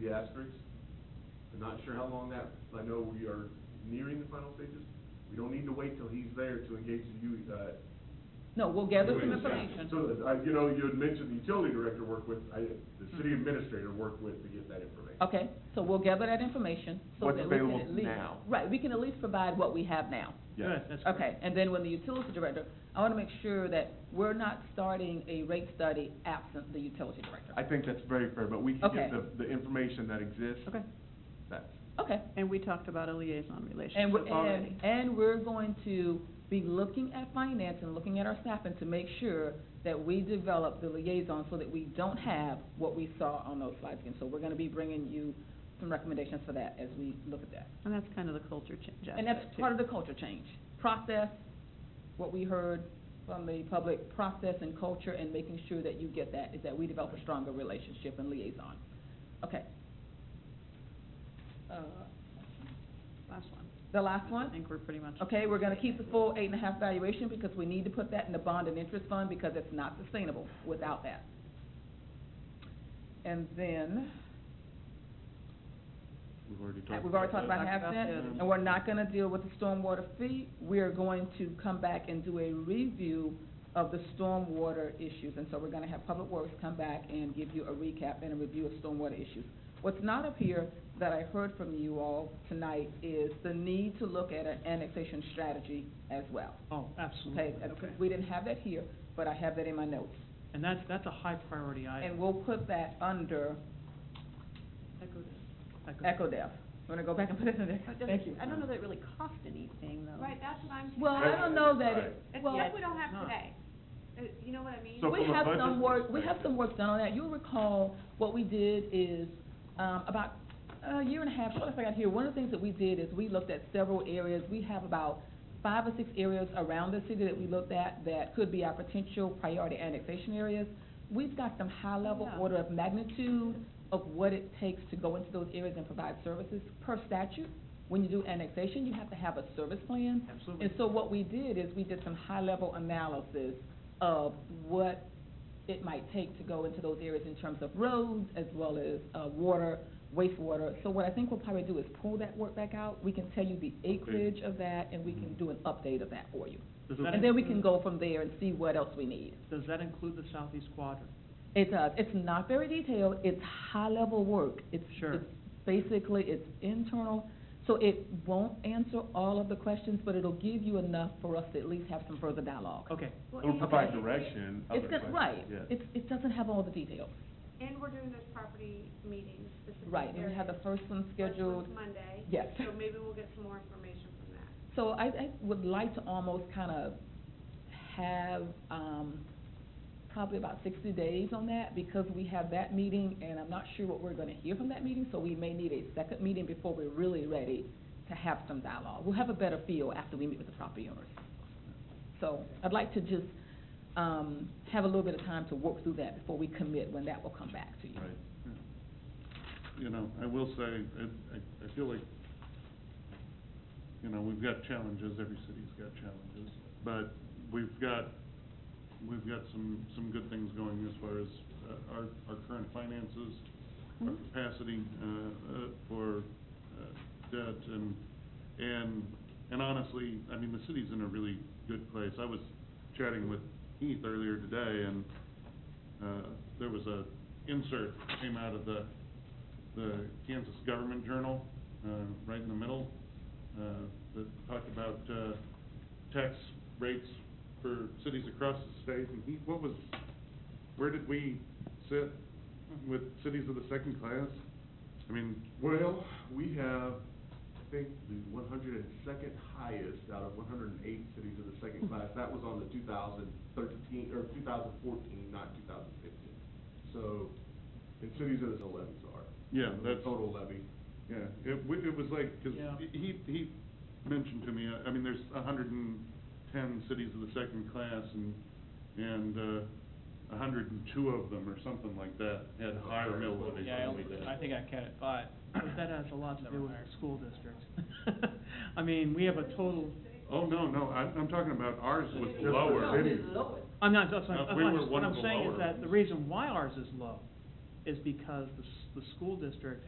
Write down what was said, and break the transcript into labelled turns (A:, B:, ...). A: the asterisks. I'm not sure how long that, I know we are nearing the final stages. We don't need to wait till he's there to engage the U, uh.
B: No, we'll gather some
A: UAC.
B: information.
A: So, I, you know, you had mentioned the utility director worked with, I, the city administrator worked with to get that information.
B: Mm-hmm. Okay, so we'll gather that information. so
A: What's
B: that we can
A: available
B: at least-
A: now.
B: Right, we can at least provide what we have now.
A: Yes.
C: Good, that's great.
B: Okay, and then when the utility director, I want to make sure that we're not starting a rate study absent the utility director.
A: I think that's very fair, but we can
B: Okay.
A: get the, the information that exists.
B: Okay,
A: That's,
B: okay.
D: And we talked about a liaison
B: And
D: relationship
B: we're,
D: already.
B: and, and we're going to be looking at finance and looking at our staffing to make sure that we develop the liaison so that we don't have what we saw on those slides again. So we're gonna be bringing you some recommendations for that as we look at that.
D: And that's kind of the culture change
B: And that's
D: aspect,
B: part of
D: too.
B: the culture change, process, what we heard from the public, process and culture, and making sure that you get that, is that we develop a stronger relationship and liaison. Okay. Uh,
D: Last one.
B: The last
D: I
B: one?
D: think we're pretty much.
B: Okay, we're gonna keep the full eight and a half valuation because we need to put that in the bond and interest fund because it's not sustainable without that. And then,
A: we've already talked.
B: we've already talked about
D: Talked
B: half
D: about
B: cent,
D: that.
B: and we're not gonna deal with the stormwater fee. We are going to come back and do a review of the stormwater issues, and so we're gonna have Public Works come back and give you a recap and a review of stormwater issues. What's not up here that I heard from you all tonight is the need to look at an annexation strategy as well.
C: Oh, absolutely,
D: Mm-hmm.
B: Okay,
C: okay.
B: that's- we didn't have that here, but I have that in my notes.
C: And that's, that's a high priority
B: And
C: item.
B: we'll put that under
D: Echo this.
C: That goes-
B: Echo Dev. You wanna go back and put it in there?
D: But
B: Thank you.
D: doesn't- I don't know that it really cost anything, though.
E: Right, that's what I'm saying.
B: Well, I don't know that it,
E: It's
B: well,
E: what we don't have
C: Huh.
E: today. Uh, You know what I mean?
A: So-
B: we
A: from a
B: have
A: budget
B: some work, we have
A: perspective-
B: some work done on that. You'll recall, what we did is, um, about a year and a half, shortly after I got here, one of the things that we did is we looked at several areas. We have about five or six areas around the city that we looked at that could be our potential priority annexation areas. We've got some high-level
D: Yeah.
B: order of magnitude of what it takes to go into those areas and provide services. Per statute, when you do annexation, you have to have a service plan.
C: Absolutely.
B: And so what we did is we did some high-level analysis of what it might take to go into those areas in terms of roads as well as, uh, water, wastewater. So what I think we'll probably do is pull that work back out. We can tell you the acreage of that and we can do an update of that for you.
C: Does that
B: And then we can
C: include-
B: go from there and see what else we need.
C: Does that include the southeast quadrant?
B: It does. It's not very detailed. It's high-level work. It's,
C: Sure.
B: it's basically, it's internal. So it won't answer all of the questions, but it'll give you enough for us to at least have some further dialogue.
C: Okay,
E: Well,
A: It'll
E: and-
A: provide direction.
B: It's
A: other
B: good, right.
A: questions, yeah.
B: It's, it doesn't have all the details.
E: And we're doing those property meetings specifically.
B: Right, and we have the first one scheduled.
E: Monday.
B: Yes.
E: So maybe we'll get some more information from that.
B: So I, I would like to almost kind of have, um, probably about sixty days on that, because we have that meeting, and I'm not sure what we're gonna hear from that meeting, so we may need a second meeting before we're really ready to have some dialogue. We'll have a better feel after we meet with the property owners. So I'd like to just, um, have a little bit of time to work through that before we commit when that will come back to you.
F: Right. Yeah. You know, I will say, I, I- I feel like, you know, we've got challenges, every city's got challenges, but we've got, we've got some, some good things going as far as uh, our, our current finances, our
B: Mhm.
F: capacity, uh, uh, for, uh, debt and, and, and honestly, I mean, the city's in a really good place. I was chatting with Heath earlier today and, uh, there was a insert came out of the, the Kansas Government Journal, uh, right in the middle, uh, that talked about, uh, tax rates for cities across the state, and he, what was, where did we sit with cities of the second class? I mean,
A: Well, we have, I think, the one hundred and second highest out of one hundred and eight cities of the second class. That was on the two thousand thirteen, or two thousand fourteen, not two thousand fifteen. So, in cities that the levies are.
F: Yeah, that's-
A: Total levy.
F: Yeah, it, w- it was like, because
C: Yeah.
F: he, he mentioned to me, I- I mean, there's a hundred and ten cities of the second class and, and, uh, a hundred and two of them or something like that had higher mill levies
C: yeah, I
F: than we
C: only,
F: did.
C: I think I counted five, but that has a lot to do with our school districts. I mean, we have a total,
F: Oh, no, no, I, I'm talking about ours was
A: Just for
F: lower.
A: cities.
C: I'm not, that's what,
F: Uh,
C: I'm- that's
F: we
C: what
F: were
C: I'm-
F: one
C: what
F: of
C: I'm
F: the
C: saying
F: lower
C: is that the
F: ones.
C: reason why ours is low is because the, s- the school district